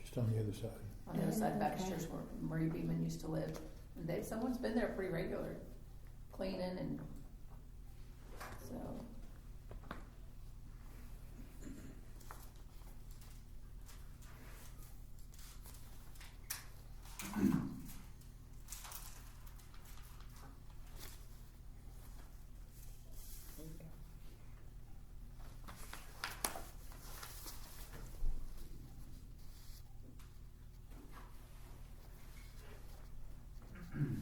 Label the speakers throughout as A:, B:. A: Just on the other side.
B: on the other side of
C: Okay.
B: Baxter's where Marie Beeman used to live. And They, someone's been there pretty regular, cleaning and, so.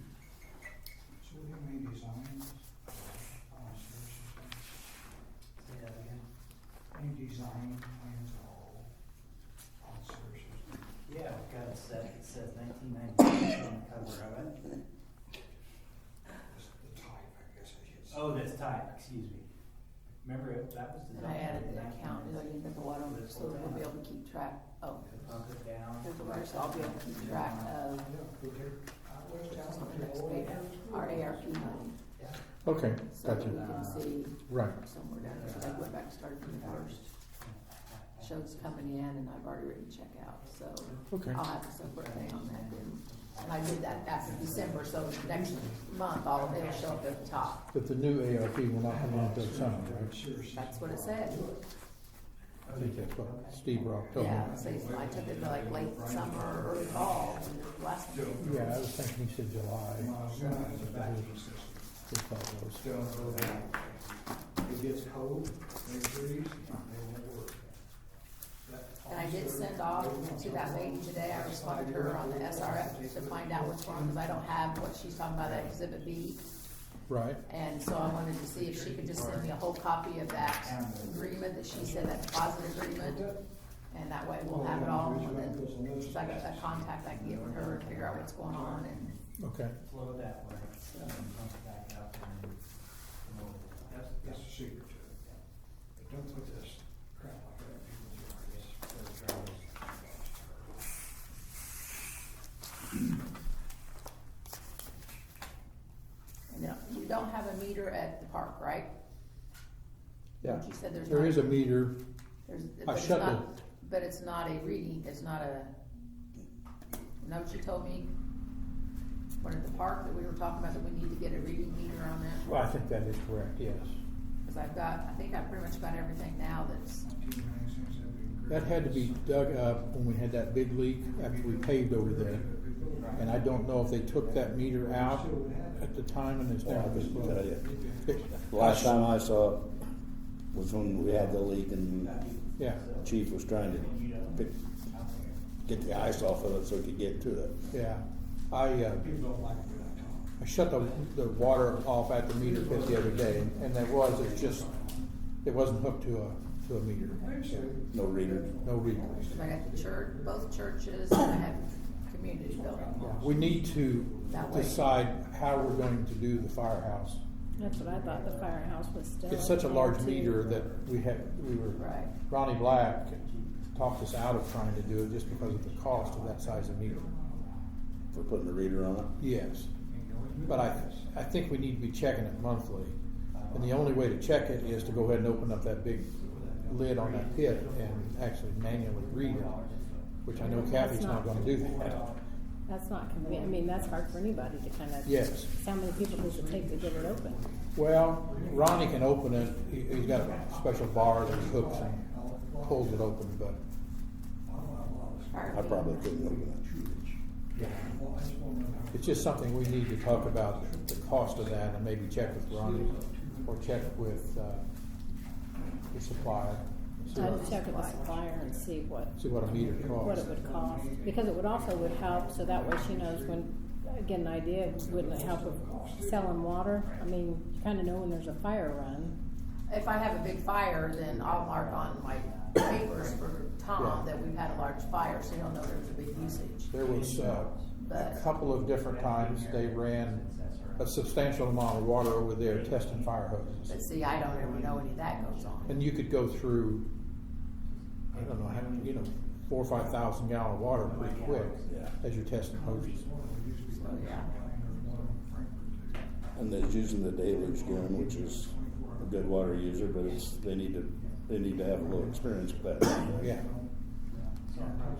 D: So we have any designs, uh, on a search or something?
E: Say that again.
D: Any design plans at all on search or something?
E: Yeah, I've got it set, it says nineteen ninety-six on the cover of it.
D: Just the type, I guess I should say.
E: Oh, that's type, excuse me. Remember, it- that was the.
B: And I added the account, so you can put the water on it, so we'll be able to keep track, oh,
E: Pump it down.
B: there's the water, so I'll be able to keep track of
D: Yeah, we did, uh, where's
B: which
D: down
B: is on
D: with
B: the
D: the
B: next
D: old-
B: page, our ARP money.
A: Okay,
B: So that we
A: gotcha.
B: can see
A: Right.
B: somewhere down there, so I went back and started from the first. Shows coming in and I've already written check out, so
A: Okay.
B: I'll have a separate thing on that then. And I did that after December, so next month, all of it will show up at the top.
A: But the new ARP will not come out until summer, right?
D: Search system.
B: That's what it said.
A: I think that's what Steve Rock told me.
B: Yeah, so it's- I took it to like late summer, early fall, and the last,
A: Yeah, I was thinking he said July.
D: Miles down is a vacuum system.
A: Just thought those.
D: Still, it gets cold, they freeze, they won't work. That
B: and I did
D: officer,
B: send off
D: they want
B: to that
D: something.
B: lady today, I responded to her on the SRF to find out what's wrong, because I don't have what she's talking about, that exhibit B.
A: Right,
B: And so I wanted to see if she could just send me a whole copy of that agreement that she said, that deposit agreement. And that way we'll have it all, and then, so I got that contact I can get with her and figure out what's going on and.
A: okay.
E: Flow it that way, and then pump it back up and. and roll it.
D: That's, that's a secret to it. But don't put this crap like that in people's yards. They're trying to-
B: And then you don't have a meter at the park, right?
A: Yeah.
B: You said there's not.
A: There is a meter.
B: there's- but it's
A: shut
B: not- But it's not a reading, it's not a, know what you told me? One at the park that we were talking about, that we need to get a reading meter on that,
A: Well, I think that is correct, yes.
B: cause I've got, I think I've pretty much got everything now that's,
A: That had to be dug up when we had that big leak after we paved over there. And I don't know if they took that meter out at the time and it's
F: Yeah,
A: now
F: I
A: this
F: couldn't tell
A: low.
F: you. The Last time I saw it was when we had the leak and
A: Yeah,
F: chief was trying to pick, get the ice off of it so he could get to it.
A: yeah. I, uh,
D: People don't like it when I talk.
A: I shut the, the water off at the meter pit the other day, and- and there was, it's just, it wasn't hooked to a, to a meter,
F: No reader.
A: no reader.
B: cause I got the church, both churches, and I have community building.
A: We need to
B: That way.
A: decide how we're going to do the firehouse.
C: That's what I thought the firehouse was still.
A: It's such a large
C: too.
A: meter that we had, we were,
B: Right.
A: Ronnie Black talked us out of trying to do it just because of the cost of that size of meter.
F: For putting the reader on it.
A: Yes, but I, I think we need to be checking it monthly. And the only way to check it is to go ahead and open up that big lid on that pit and actually manually read it, which I know Kathy's not gonna do that.
C: That's not convenient. I mean, that's hard for anybody to kind of.
A: Yes.
C: How many people does it take to get it open?
A: Well, Ronnie can open it, he, he's got a special bar that he hooks and pulls it open, but,
F: I probably couldn't open
A: yeah. It's just something we need to talk about, the cost of that, and maybe check with Ronnie, or check with, uh, the supplier. and see
C: I
A: what-
C: would check with the supplier and see what,
A: See what a meter
C: what
A: costs.
C: it would cost, because it would also would help, so that way she knows when, get an idea, wouldn't it help with selling water? I mean, you kinda know when there's a fire run.
B: If I have a big fire, then I'll mark on my papers for Tom
A: Yeah.
B: that we've had a large fire, so he'll know there's a big usage.
A: There was uh, a
B: But-
A: couple of different times they ran a substantial amount of water over there testing fire
B: But
A: hoses.
B: see, I don't ever know any of that goes on.
A: And you could go through, I don't know, how you know, four or five thousand gallon of water pretty quick
F: Yeah.
A: as you're testing hoses.
B: So, yeah.
F: it. And they're using the deluge gun, which is a good water user, but it's, they need to, they need to have a little experience with that.
A: Yeah.